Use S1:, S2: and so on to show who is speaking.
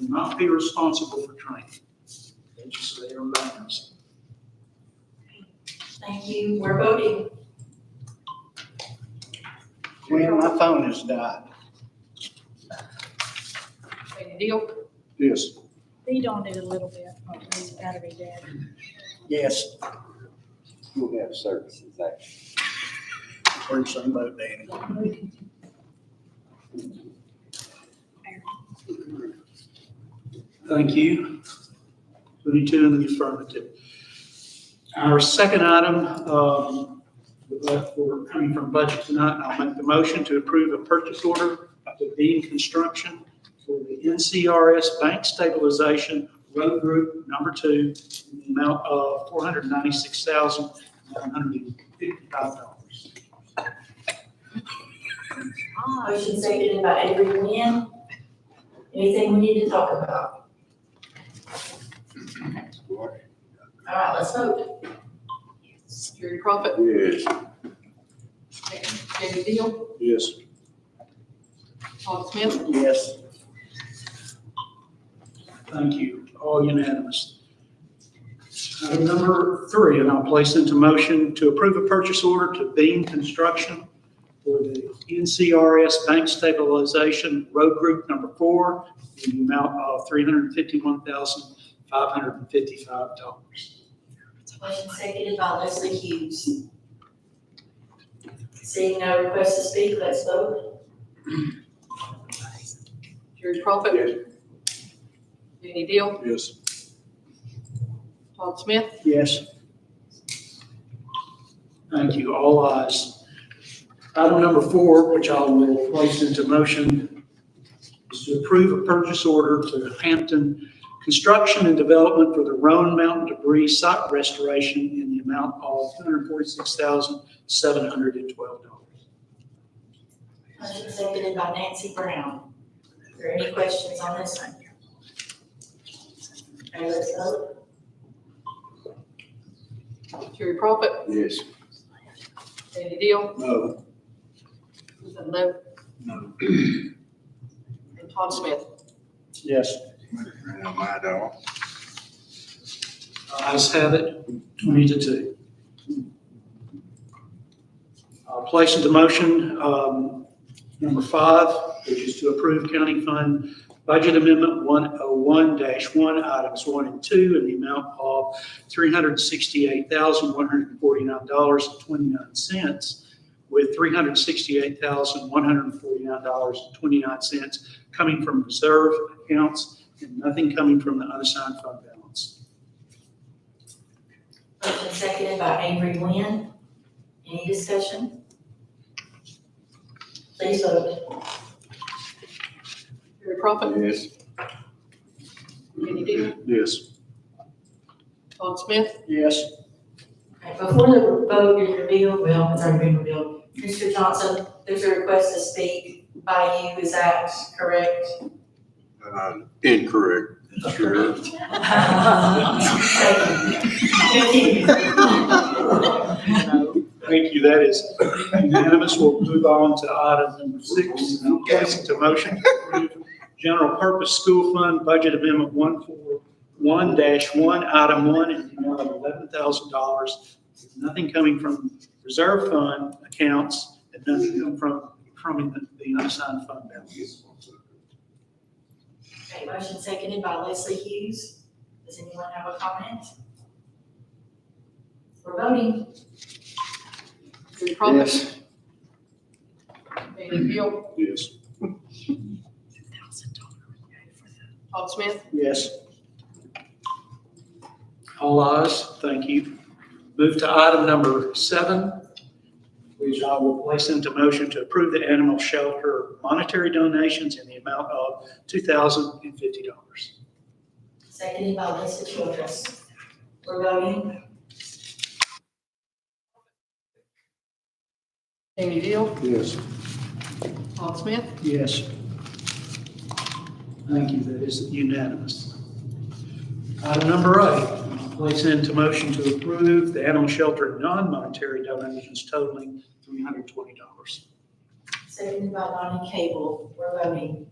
S1: will not be responsible for training. They just say they're embarrassed.
S2: Thank you, we're voting.
S1: Glenn, my phone has died.
S3: Deal.
S1: Yes.
S3: Feed on it a little bit, his battery dead.
S1: Yes,
S4: You'll have services there.
S1: we're in the same boat, Danny. Thank you. Twenty-two in the affirmative. Our second item, um, we're coming from budget tonight, and I'll make the motion to approve a purchase order to Dean Construction for the NCRS Bank Stabilization Road Group Number Two, in the amount of four hundred ninety-six thousand, nine hundred and fifty-five dollars.
S2: Motion seconded by Avery Nguyen. Anything we need to talk about? All right, let's vote.
S3: Gary Crumpet,
S4: Yes.
S3: Danny Deal,
S4: Yes.
S3: Todd Smith,
S1: Yes. Thank you, all unanimous. Item number three, and I'll place into motion to approve a purchase order to Beam Construction for the NCRS Bank Stabilization Road Group Number Four in the amount of three hundred and fifty-one thousand, five hundred and fifty-five dollars.
S2: Motion seconded by Leslie Hughes. Seeing no request to speak, let's vote.
S3: Gary Crumpet. Danny Deal,
S4: Yes.
S3: Todd Smith,
S1: Yes. Thank you, all ayes. Item number four, which I will place into motion, is to approve a purchase order to Hampton Construction and Development for the Roan Mountain Debris Site Restoration in the amount of $246,712.
S2: Motion seconded by Nancy Brown. Are there any questions on this one? All right, let's vote.
S3: Gary Crumpet,
S4: Yes.
S3: Danny Deal,
S1: No.
S3: was that no?
S1: No.
S3: And Todd Smith.
S1: Yes.
S4: Now, my dog.
S1: Ayes Uh, have it, 20 to 2. I'll uh, place into motion um, number five, which is to approve County Fund Budget Amendment 101-1, Items 1 and 2, in the amount of $368,149.29, with $368,149.29 coming from reserve accounts and nothing coming from the unassigned fund balance.
S2: Motion seconded by Avery Nguyen. Any discussion? Please vote.
S3: Gary Crumpet,
S4: Yes.
S3: Danny Deal,
S4: Yes.
S3: Todd Smith,
S1: Yes.
S2: Alright, Before the vote is revealed, well, it's already been revealed. Mr. Johnson, there's a request to speak by you, is that correct?
S4: Uh, incorrect. Sure.
S2: Thank you. Continue.
S1: Thank you, that is unanimous. We'll move on to item number six, and I'll place it to motion to approve general purpose school fund budget amendment one four one one, item one, in the amount of eleven thousand dollars. Nothing coming from reserve fund accounts and nothing come from, from the- the unassigned fund balance.
S2: Okay, motion seconded by Leslie Hughes. Does anyone have a comment? We're voting.
S3: Gary Crumpet, Danny Deal,
S4: Yes.
S3: Todd Smith,
S1: Yes. All ayes, thank you. Move to item number seven, which I will place into motion to approve the animal shelter monetary donations in the amount of $2,050.
S2: Seconded by Lisa Childress. We're voting.
S3: Danny Deal,
S4: Yes.
S3: Todd Smith,
S1: Yes. Thank you, that is unanimous. Item number eight, place into motion to approve the animal shelter non-monetary donations totaling $320.
S2: Seconded by Lonnie Cable. We're voting.